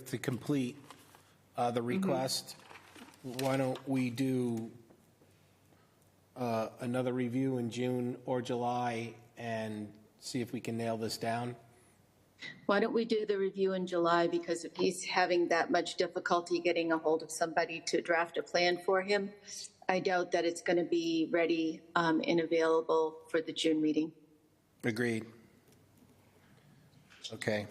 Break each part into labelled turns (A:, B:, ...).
A: to complete uh, the request, why don't we do uh, another review in June or July and see if we can nail this down?
B: Why don't we do the review in July, because if he's having that much difficulty getting a hold of somebody to draft a plan for him, I doubt that it's going to be ready um, and available for the June meeting.
A: Agreed. Okay.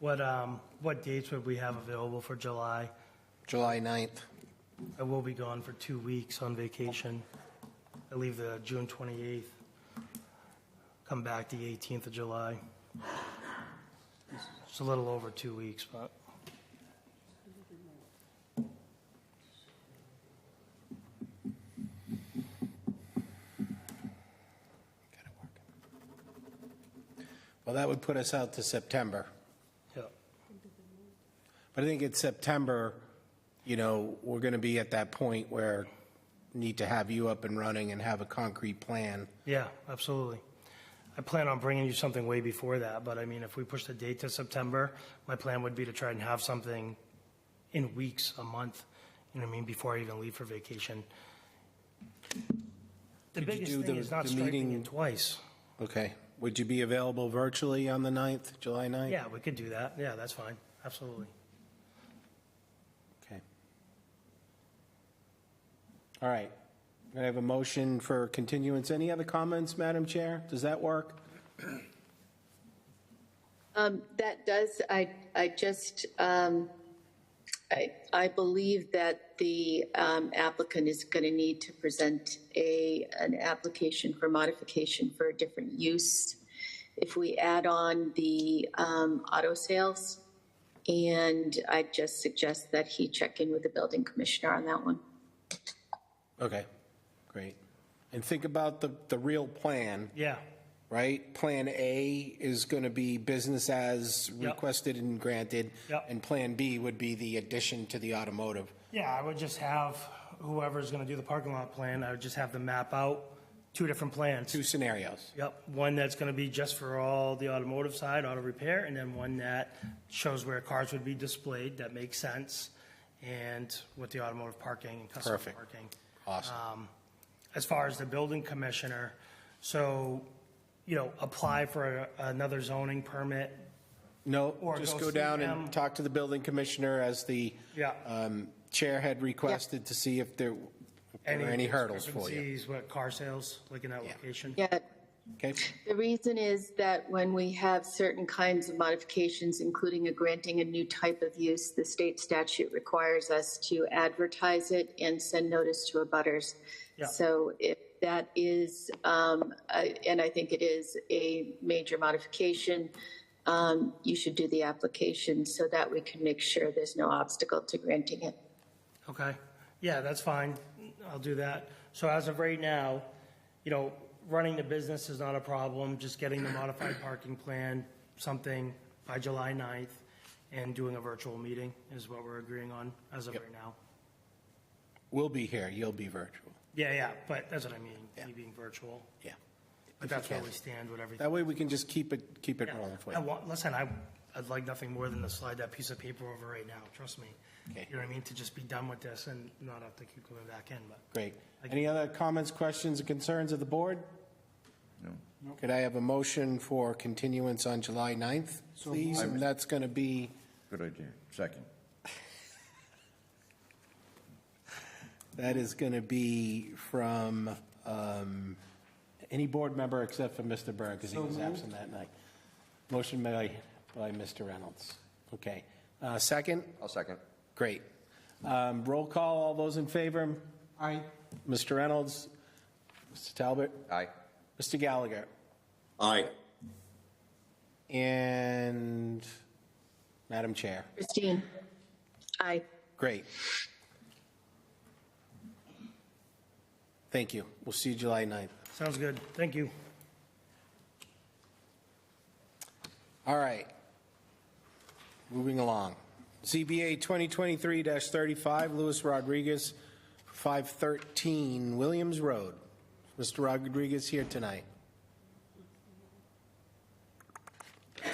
C: What, um, what dates would we have available for July?
A: July 9th.
C: I will be gone for two weeks on vacation. I leave the June 28th, come back the 18th of July. It's a little over two weeks, but
A: Well, that would put us out to September.
C: yeah,
A: But I think it's September, you know, we're going to be at that point where need to have you up and running and have a concrete plan.
C: yeah, absolutely. I plan on bringing you something way before that, but I mean, if we push the date to September, my plan would be to try and have something in weeks, a month, you know what I mean, before I even leave for vacation.
A: Could
C: The
A: you
C: biggest
A: do
C: thing
A: the-
C: is not
A: the
C: striking
A: meeting-
C: it twice.
A: Okay. Would you be available virtually on the 9th, July 9th?
C: Yeah, we could do that. Yeah, that's fine. Absolutely.
A: Okay. All right. I have a motion for continuance. Any other comments, Madam Chair? Does that work?
B: Um, That does, I, I just, um, I, I believe that the um, applicant is going to need to present a, an application for modification for a different use. If we add on the um, auto sales, and I just suggest that he check in with the building commissioner on that one.
A: Okay, great. And think about the, the real plan,
C: Yeah,
A: right? Plan A is going to be business as
C: Yep.
A: requested and granted.
C: Yep.
A: And Plan B would be the addition to the automotive.
C: yeah, I would just have whoever's gonna do the parking lot plan, I would just have them map out two different plans.
A: Two scenarios.
C: Yep, one that's gonna be just for all the automotive side, auto repair, and then one that shows where cars would be displayed, that makes sense, and with the automotive parking and customer
A: Perfect.
C: parking. Um,
A: Awesome.
C: as far as the building commissioner, so, you know, apply for a- another zoning permit.
A: No,
C: or
A: just
C: go
A: go
C: see
A: down
C: them.
A: and talk to the building commissioner as the
C: Yeah.
A: um, chair had requested to see if there were any hurdles for you.
C: discrepancies with car sales, like in that location?
B: Yeah,
A: Okay?
B: The reason is that when we have certain kinds of modifications, including a granting a new type of use, the state statute requires us to advertise it and send notice to abutters.
C: Yeah.
B: So if that is, um, I- and I think it is a major modification, um, you should do the application so that we can make sure there's no obstacle to granting it.
C: Okay, yeah, that's fine, I'll do that. So as of right now, you know, running the business is not a problem, just getting the modified parking plan, something by July 9th, and doing a virtual meeting is what we're agreeing on as of right now.
A: We'll be here, you'll be virtual.
C: Yeah, yeah, but that's what I mean, you being virtual,
A: Yeah.
C: but that's where we stand with everything.
A: That way we can just keep it, keep it
C: Yeah.
A: rolling for
C: I
A: you.
C: want, listen, I, I'd like nothing more than to slide that piece of paper over right now, trust me.
A: Okay.
C: You know what I mean, to just be done with this and not have to keep coming back in, but.
A: Great. Any other comments, questions, or concerns of the board? No. Could I have a motion for continuance on July 9th, please? And that's going to be,
D: Good idea. Second.
A: that is going to be from um, any board member except for Mr. Berg, because he was absent that night. Motion by, by Mr. Reynolds. Okay. Uh, Second?
D: I'll second.
A: Great. Um, Roll call, all those in favor? Aye. Mr. Reynolds? Mr. Talbot?
D: Aye.
A: Mr. Gallagher?
D: Aye.
A: And Madam Chair.
B: Christine? Aye.
A: Great. Thank you. We'll see you July 9th.
C: Sounds good, thank you.
A: All right. Moving along. ZBA 2023-35, Luis Rodriguez, 513 Williams Road. Mr. Rodriguez here tonight.